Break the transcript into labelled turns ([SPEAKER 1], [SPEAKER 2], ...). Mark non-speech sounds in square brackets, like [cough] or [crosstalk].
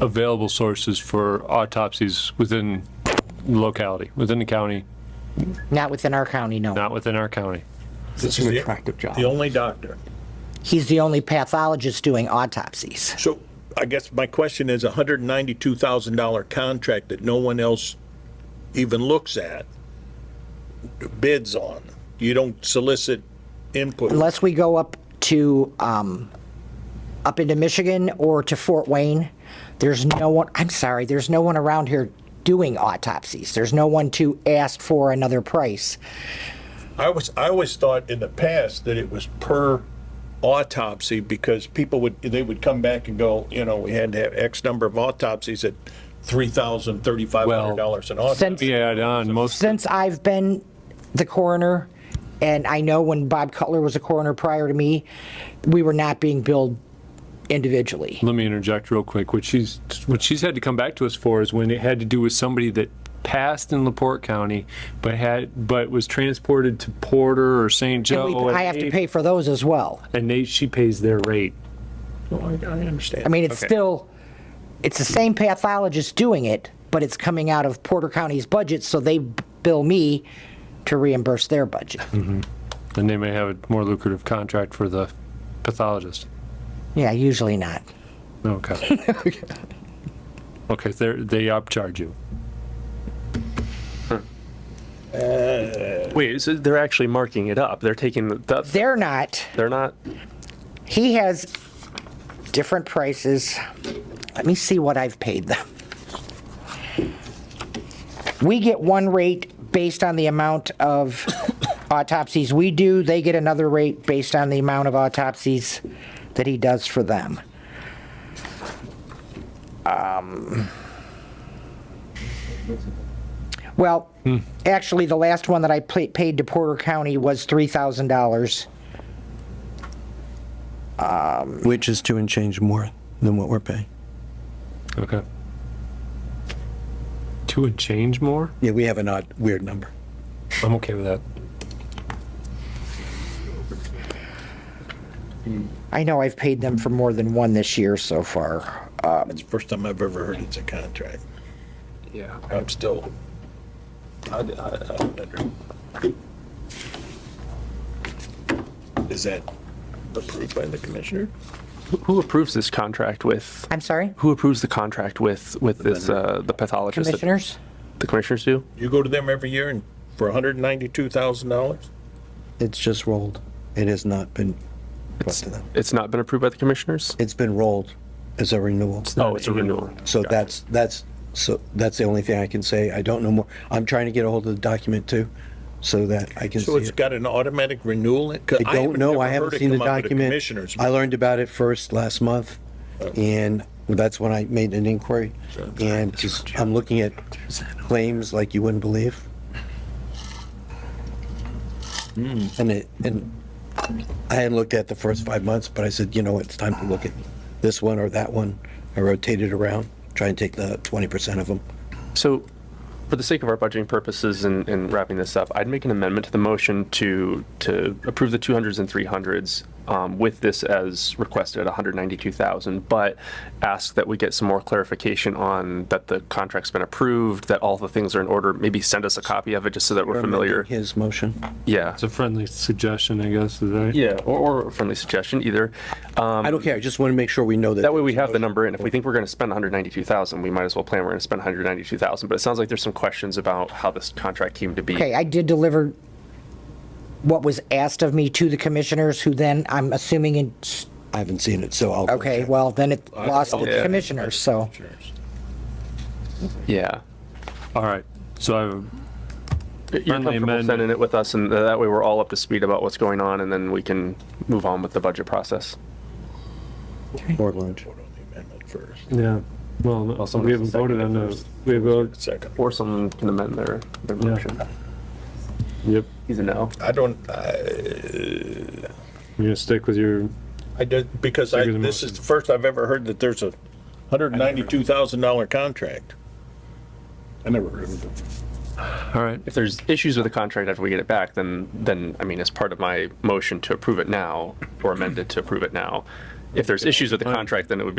[SPEAKER 1] available sources for autopsies within locality, within the county,
[SPEAKER 2] Not within our county, no.
[SPEAKER 1] not within our county.
[SPEAKER 3] This
[SPEAKER 4] is
[SPEAKER 3] is
[SPEAKER 4] the-
[SPEAKER 3] an attractive job.
[SPEAKER 4] The only doctor.
[SPEAKER 2] He's the only pathologist doing autopsies.
[SPEAKER 4] So I guess my question is a hundred and ninety-two thousand dollar contract that no one else even looks at, bids on. You don't solicit input.
[SPEAKER 2] Unless we go up to, um, up into Michigan or to Fort Wayne, there's no one, I'm sorry, there's no one around here doing autopsies. There's no one to ask for another price.
[SPEAKER 4] I was, I always thought in the past that it was per autopsy because people would, they would come back and go, you know, we had to have X number of autopsies at three thousand, thirty-five hundred dollars an
[SPEAKER 2] Since-
[SPEAKER 4] autopsy.
[SPEAKER 1] Yeah, on most,
[SPEAKER 2] Since I've been the coroner, and I know when Bob Cutler was a coroner prior to me, we were not being billed individually.
[SPEAKER 1] let me interject real quick, what she's, what she's had to come back to us for is when it had to do with somebody that passed in LaPorte County, but had, but was transported to Porter or St.
[SPEAKER 2] We-
[SPEAKER 1] Joe.
[SPEAKER 2] I have to
[SPEAKER 1] and-
[SPEAKER 2] pay for those as well.
[SPEAKER 1] And they, she pays their rate.
[SPEAKER 4] No, I, I understand.
[SPEAKER 2] I mean, it's still, it's the same pathologist doing it, but it's coming out of Porter County's budget, so they b- bill me to reimburse their budget.
[SPEAKER 1] And they may have a more lucrative contract for the pathologist.
[SPEAKER 2] Yeah, usually not. [laughs]
[SPEAKER 1] Okay. Okay, they're, they upcharge you.
[SPEAKER 5] Wait, so they're actually marking it up. They're taking the, the
[SPEAKER 2] They're not.
[SPEAKER 5] they're not
[SPEAKER 2] He has different prices. Let me see what I've paid them. We get one rate based on the amount of autopsies we do. They get another rate based on the amount of autopsies that he does for them. Um, Well, actually, the last one that I pla- paid to Porter County was $3,000.
[SPEAKER 6] Which is two and change more than what we're paying.
[SPEAKER 1] Okay. Two and change more?
[SPEAKER 6] Yeah, we have an odd, weird number.
[SPEAKER 1] I'm okay with that.
[SPEAKER 2] I know I've paid them for more than one this year so far.
[SPEAKER 4] It's the first time I've ever heard it's a contract.
[SPEAKER 5] Yeah.
[SPEAKER 4] I'm still. I- I- I don't under- Is that approved by the commissioner?
[SPEAKER 5] Who approves this contract with
[SPEAKER 2] I'm sorry,
[SPEAKER 5] who approves the contract with with this uh the pathologist? that-
[SPEAKER 2] commissioners?
[SPEAKER 5] The commissioners do?
[SPEAKER 4] You go to them every year and for hundred and ninety-two thousand dollars?
[SPEAKER 6] It's just rolled. It has not been brought to them.
[SPEAKER 5] It's not been approved by the commissioners?
[SPEAKER 6] It's been rolled as a renewal.
[SPEAKER 5] Oh, it's a renewal.
[SPEAKER 6] So that's, that's, so that's the only thing I can say. I don't know more. I'm trying to get a hold of the document too, so that I can see
[SPEAKER 4] So it's
[SPEAKER 6] it.
[SPEAKER 4] got an automatic renewal? in- 'cause
[SPEAKER 6] I don't
[SPEAKER 4] haven't
[SPEAKER 6] know.
[SPEAKER 4] ever
[SPEAKER 6] I
[SPEAKER 4] heard
[SPEAKER 6] haven't
[SPEAKER 4] it
[SPEAKER 6] seen the
[SPEAKER 4] come up at a
[SPEAKER 6] document.
[SPEAKER 4] Commissioners. Oh.
[SPEAKER 6] I learned about it first last month and that's when I made an inquiry. And just- I'm looking at claims like you wouldn't believe.
[SPEAKER 4] Hmm.
[SPEAKER 6] And it, and I hadn't looked at the first five months, but I said, you know, it's time to look at this one or that one. I rotated around, try and take the 20% of them.
[SPEAKER 5] So for the sake of our budgeting purposes and, and wrapping this up, I'd make an amendment to the motion to to approve the 200s and 300s um, with this as requested at 192,000, but ask that we get some more clarification on that the contract's been approved, that all the things are in order. Maybe send us a copy of it just so that we're familiar.
[SPEAKER 6] His motion.
[SPEAKER 5] Yeah.
[SPEAKER 1] It's a friendly suggestion, I guess, is that?
[SPEAKER 5] Yeah, or, or a friendly suggestion either. Um,
[SPEAKER 6] I don't care. I just want to make sure we know that.
[SPEAKER 5] That way we have the number, and if we think we're going to spend 192,000, we might as well plan we're going to spend 192,000. But it sounds like there's some questions about how this contract came to be.
[SPEAKER 2] Okay, I did deliver what was asked of me to the commissioners, who then, I'm assuming, in-
[SPEAKER 6] I haven't seen it, so I'll.
[SPEAKER 2] okay, well, then it lost the
[SPEAKER 5] yeah.
[SPEAKER 2] commissioners, so.
[SPEAKER 5] Yeah.
[SPEAKER 1] All right, so I have
[SPEAKER 5] You're
[SPEAKER 1] Friendly
[SPEAKER 5] comfortable
[SPEAKER 1] amendment.
[SPEAKER 5] sending it with us, and that way we're all up to speed about what's going on, and then we can move on with the budget process.
[SPEAKER 6] Board lunch.
[SPEAKER 4] Vote on the amendment first.
[SPEAKER 1] Yeah, well,
[SPEAKER 5] Also,
[SPEAKER 1] we haven't voted on the, we have, voted-
[SPEAKER 4] Second.
[SPEAKER 5] Or someone can amend their, their
[SPEAKER 1] Yeah.
[SPEAKER 5] motion.
[SPEAKER 1] yep,
[SPEAKER 5] He's a no.
[SPEAKER 4] I don't, I,
[SPEAKER 1] you're gonna stick with your,
[SPEAKER 4] I did, because I,
[SPEAKER 1] Second the
[SPEAKER 4] this is
[SPEAKER 1] motion.
[SPEAKER 4] the first I've ever heard that there's a hundred and ninety-two thousand dollar contract. I never heard of it.
[SPEAKER 1] all right,
[SPEAKER 5] If there's issues with the contract after we get it back, then, then, I mean, as part of my motion to approve it now, or amend it to approve it now, if there's issues with the contract, then it would be